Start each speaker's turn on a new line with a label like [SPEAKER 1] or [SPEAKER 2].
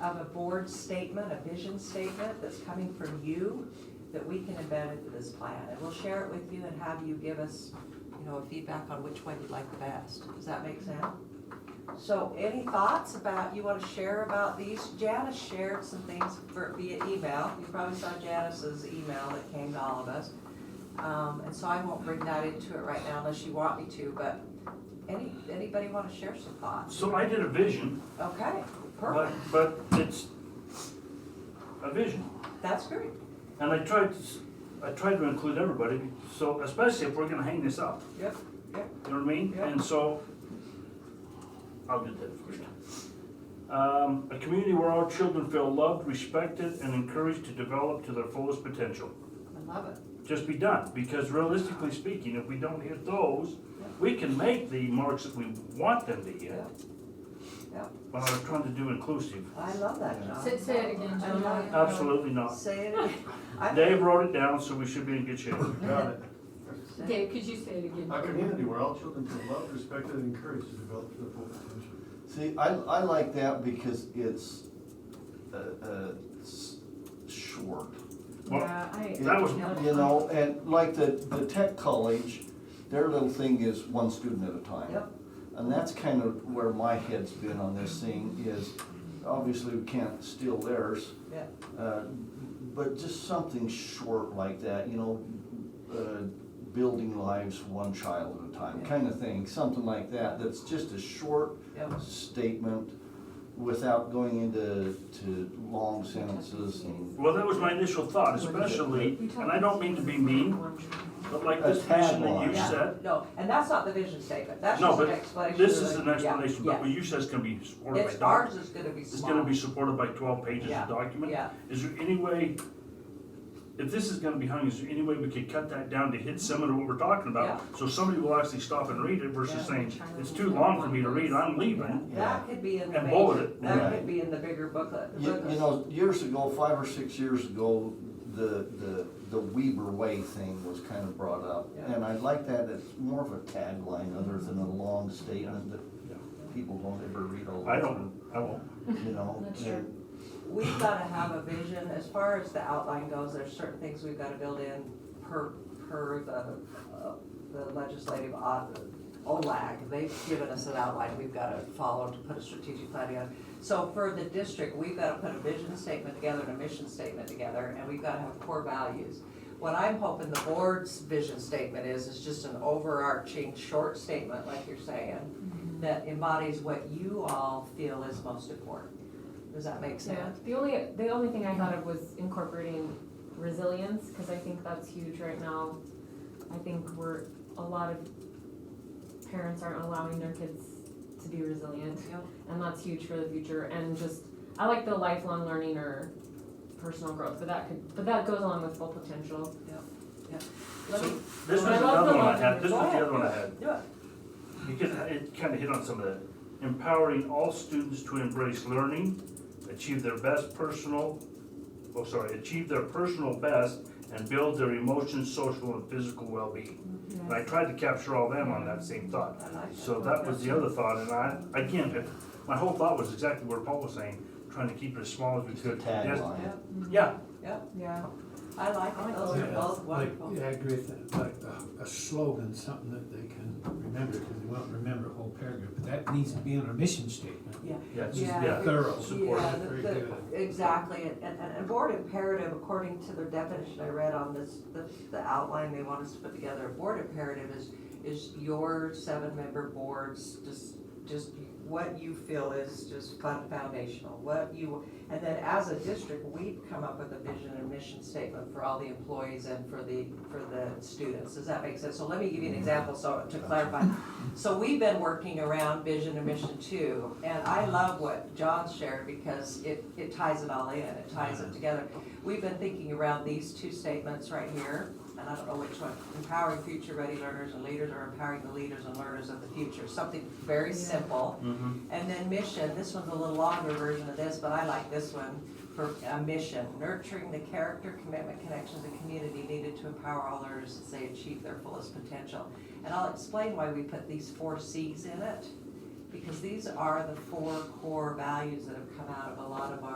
[SPEAKER 1] of a board statement, a vision statement that's coming from you that we can embed into this plan. And we'll share it with you and have you give us, you know, a feedback on which one you like the best. Does that make sense? So any thoughts about, you wanna share about these? Janice shared some things for- via email. You probably saw Janice's email that came to all of us. Um, and so I won't bring that into it right now unless you want me to, but any, anybody wanna share some thoughts?
[SPEAKER 2] So I did a vision,
[SPEAKER 1] Okay,
[SPEAKER 2] but,
[SPEAKER 1] perfect.
[SPEAKER 2] but it's a vision.
[SPEAKER 1] That's great.
[SPEAKER 2] And I tried, to s- I tried to include everybody, so especially if we're gonna hang this up,
[SPEAKER 1] Yep, yep.
[SPEAKER 2] you know what I mean?
[SPEAKER 1] Yeah.
[SPEAKER 2] And so, I'll do that first. Um, a community where all children feel loved, respected, and encouraged to develop to their fullest potential.
[SPEAKER 1] I love it.
[SPEAKER 2] Just be done, because realistically speaking, if we don't hit those,
[SPEAKER 1] Yeah.
[SPEAKER 2] we can make the marks that we want them to hit.
[SPEAKER 1] Yeah. Yeah.
[SPEAKER 2] When I was trying to do inclusive,
[SPEAKER 1] I love that, John.
[SPEAKER 3] Say, say it again,
[SPEAKER 1] I love
[SPEAKER 3] John.
[SPEAKER 2] absolutely not.
[SPEAKER 1] Say it again. I-
[SPEAKER 2] Dave wrote it down, so we should be in good shape.
[SPEAKER 4] Got it.
[SPEAKER 3] Dave, could you say it again?
[SPEAKER 4] A community where all children feel loved, respected, and encouraged to develop their full potential. See, I, I like that because it's, uh, uh, s- short.
[SPEAKER 2] Well,
[SPEAKER 5] Yeah, I.
[SPEAKER 2] That was-
[SPEAKER 4] You know, and like the, the tech college, their little thing is one student at a time.
[SPEAKER 1] Yep.
[SPEAKER 4] And that's kind of where my head's been on this thing is, obviously we can't steal theirs,
[SPEAKER 1] Yeah,
[SPEAKER 4] Uh, But just something short like that, you know, uh, building lives one child at a time,
[SPEAKER 1] Yeah.
[SPEAKER 4] kind of thing, something like that, that's just a short
[SPEAKER 1] yeah.
[SPEAKER 4] statement without going into, to long sentences and.
[SPEAKER 2] well, that was my initial thought, especially, and I don't mean to be mean, but like this
[SPEAKER 4] A tad
[SPEAKER 2] vision that you
[SPEAKER 4] large.
[SPEAKER 2] said.
[SPEAKER 1] No, and that's not the vision statement. That's
[SPEAKER 2] No,
[SPEAKER 1] just an
[SPEAKER 2] but
[SPEAKER 1] explanation.
[SPEAKER 2] this
[SPEAKER 1] of
[SPEAKER 2] is
[SPEAKER 1] the-
[SPEAKER 2] an
[SPEAKER 1] yeah,
[SPEAKER 2] explanation,
[SPEAKER 1] yeah.
[SPEAKER 2] but what you said is gonna be supported by
[SPEAKER 1] It's,
[SPEAKER 2] doc.
[SPEAKER 1] ours is gonna be small.
[SPEAKER 2] It's gonna be supported by twelve pages
[SPEAKER 1] Yeah,
[SPEAKER 2] of document.
[SPEAKER 1] yeah.
[SPEAKER 2] Is there any way, if this is gonna be hung, is there any way we could cut that down to hit some of what we're talking about? So somebody will actually stop and read it versus
[SPEAKER 1] Yeah.
[SPEAKER 2] saying, it's too long for me to read, I'm leaving.
[SPEAKER 1] That could be in the
[SPEAKER 2] And
[SPEAKER 1] major,
[SPEAKER 2] bullet it.
[SPEAKER 1] that
[SPEAKER 4] Yeah.
[SPEAKER 1] could be in the bigger booklet.
[SPEAKER 4] You, you know, years ago, five or six years ago, the, the, the Weber Way thing was kind of brought up.
[SPEAKER 1] Yeah.
[SPEAKER 4] And I like that, it's more of a tagline other than a long statement that people don't ever read all the
[SPEAKER 2] I don't, I won't.
[SPEAKER 4] you know.
[SPEAKER 3] That's true.
[SPEAKER 4] and-
[SPEAKER 1] We've gotta have a vision, as far as the outline goes, there's certain things we've gotta build in per, per the, uh, the legislative, uh, o- OLAG, they've given us an outline we've gotta follow to put a strategic plan together. So for the district, we've gotta put a vision statement together and a mission statement together, and we've gotta have core values. What I'm hoping the board's vision statement is, is just an overarching, short statement, like you're saying, that embodies what you all feel is most important. Does that make
[SPEAKER 5] Yeah,
[SPEAKER 1] sense?
[SPEAKER 5] the only, the only thing I thought of was incorporating resilience, cause I think that's huge right now. I think we're, a lot of parents aren't allowing their kids to be resilient,
[SPEAKER 1] Yeah.
[SPEAKER 5] and that's huge for the future, and just, I like the lifelong learning or personal growth, but that could, but that goes along with full potential.
[SPEAKER 1] Let me,
[SPEAKER 2] So This was
[SPEAKER 5] I love
[SPEAKER 2] another
[SPEAKER 5] the
[SPEAKER 2] one I
[SPEAKER 5] logic.
[SPEAKER 2] had, this
[SPEAKER 1] Go
[SPEAKER 2] was the
[SPEAKER 1] ahead.
[SPEAKER 2] other one I had.
[SPEAKER 1] do it.
[SPEAKER 2] Because it kind of hit on some of that. Empowering all students to embrace learning, achieve their best personal, oh, sorry, achieve their personal best and build their emotional, social, and physical well-being. And I tried to capture all them on that same thought.
[SPEAKER 1] I like
[SPEAKER 2] So that was the other thought, and I, again, it- my whole thought was exactly what Paul was saying, trying to keep it as small as we
[SPEAKER 4] It's a
[SPEAKER 2] could. Yes,
[SPEAKER 4] tagline.
[SPEAKER 2] Yeah,
[SPEAKER 5] Yeah.
[SPEAKER 1] I like it, those are
[SPEAKER 6] Yeah,
[SPEAKER 1] both
[SPEAKER 6] like-
[SPEAKER 1] wonderful.
[SPEAKER 6] Yeah, I agree with that, like uh, a slogan, something that they can remember, because they won't remember a whole paragraph, but that needs to be on our mission statement.
[SPEAKER 2] yeah, it's-
[SPEAKER 1] Yeah.
[SPEAKER 2] yeah.
[SPEAKER 6] Thorough.
[SPEAKER 2] Support
[SPEAKER 1] Yeah,
[SPEAKER 6] it,
[SPEAKER 1] the-
[SPEAKER 6] very
[SPEAKER 1] the-
[SPEAKER 6] good.
[SPEAKER 1] Exactly, and, and, and board imperative, according to the definition I read on this, the, the outline they want us to put together, board imperative is, is your seven-member boards, just, just what you feel is just fun- foundational, what you, and then as a district, we've come up with a vision and mission statement for all the employees and for the, for the students, does that make sense? So let me give you an example, so, to clarify, so we've been working around vision and mission two, and I love what John shared because it, it ties it all in, it ties it together. We've been thinking around these two statements right here, and I don't know which one, empowering future ready learners and leaders or empowering the leaders and learners of the future, something very
[SPEAKER 5] Yeah.
[SPEAKER 1] simple.
[SPEAKER 2] Mhm.
[SPEAKER 1] And then mission, this one's a little longer version of this, but I like this one for a mission. Nurturing the character, commitment, connections, and community needed to empower all learners as they achieve their fullest potential. And I'll explain why we put these four Cs in it, because these are the four core values that have come out of a lot of our